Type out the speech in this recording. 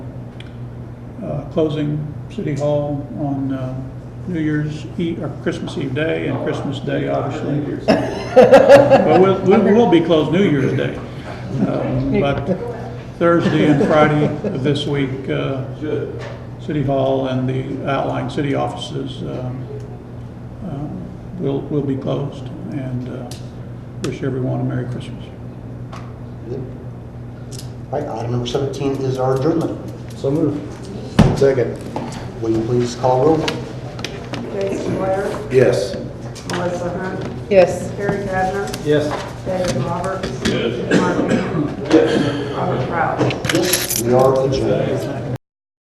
uh, closing City Hall on uh, New Year's Eve, or Christmas Eve Day, and Christmas Day, obviously. Well, we'll- we will be closed New Year's Day, Um, but Thursday and Friday of this week, uh, City Hall and the outlying city offices um, uh, will, will be closed, and uh, wish everyone a Merry Christmas. Right, item number 17 is our adjournment. So moved. Second. Will you please call roll? Jason Blair, Yes. Melissa Hunt, Yes. Terry Kavner, Yes. David Roberts. Mark Ham, Robert Kraus. Yes, we are adjourned.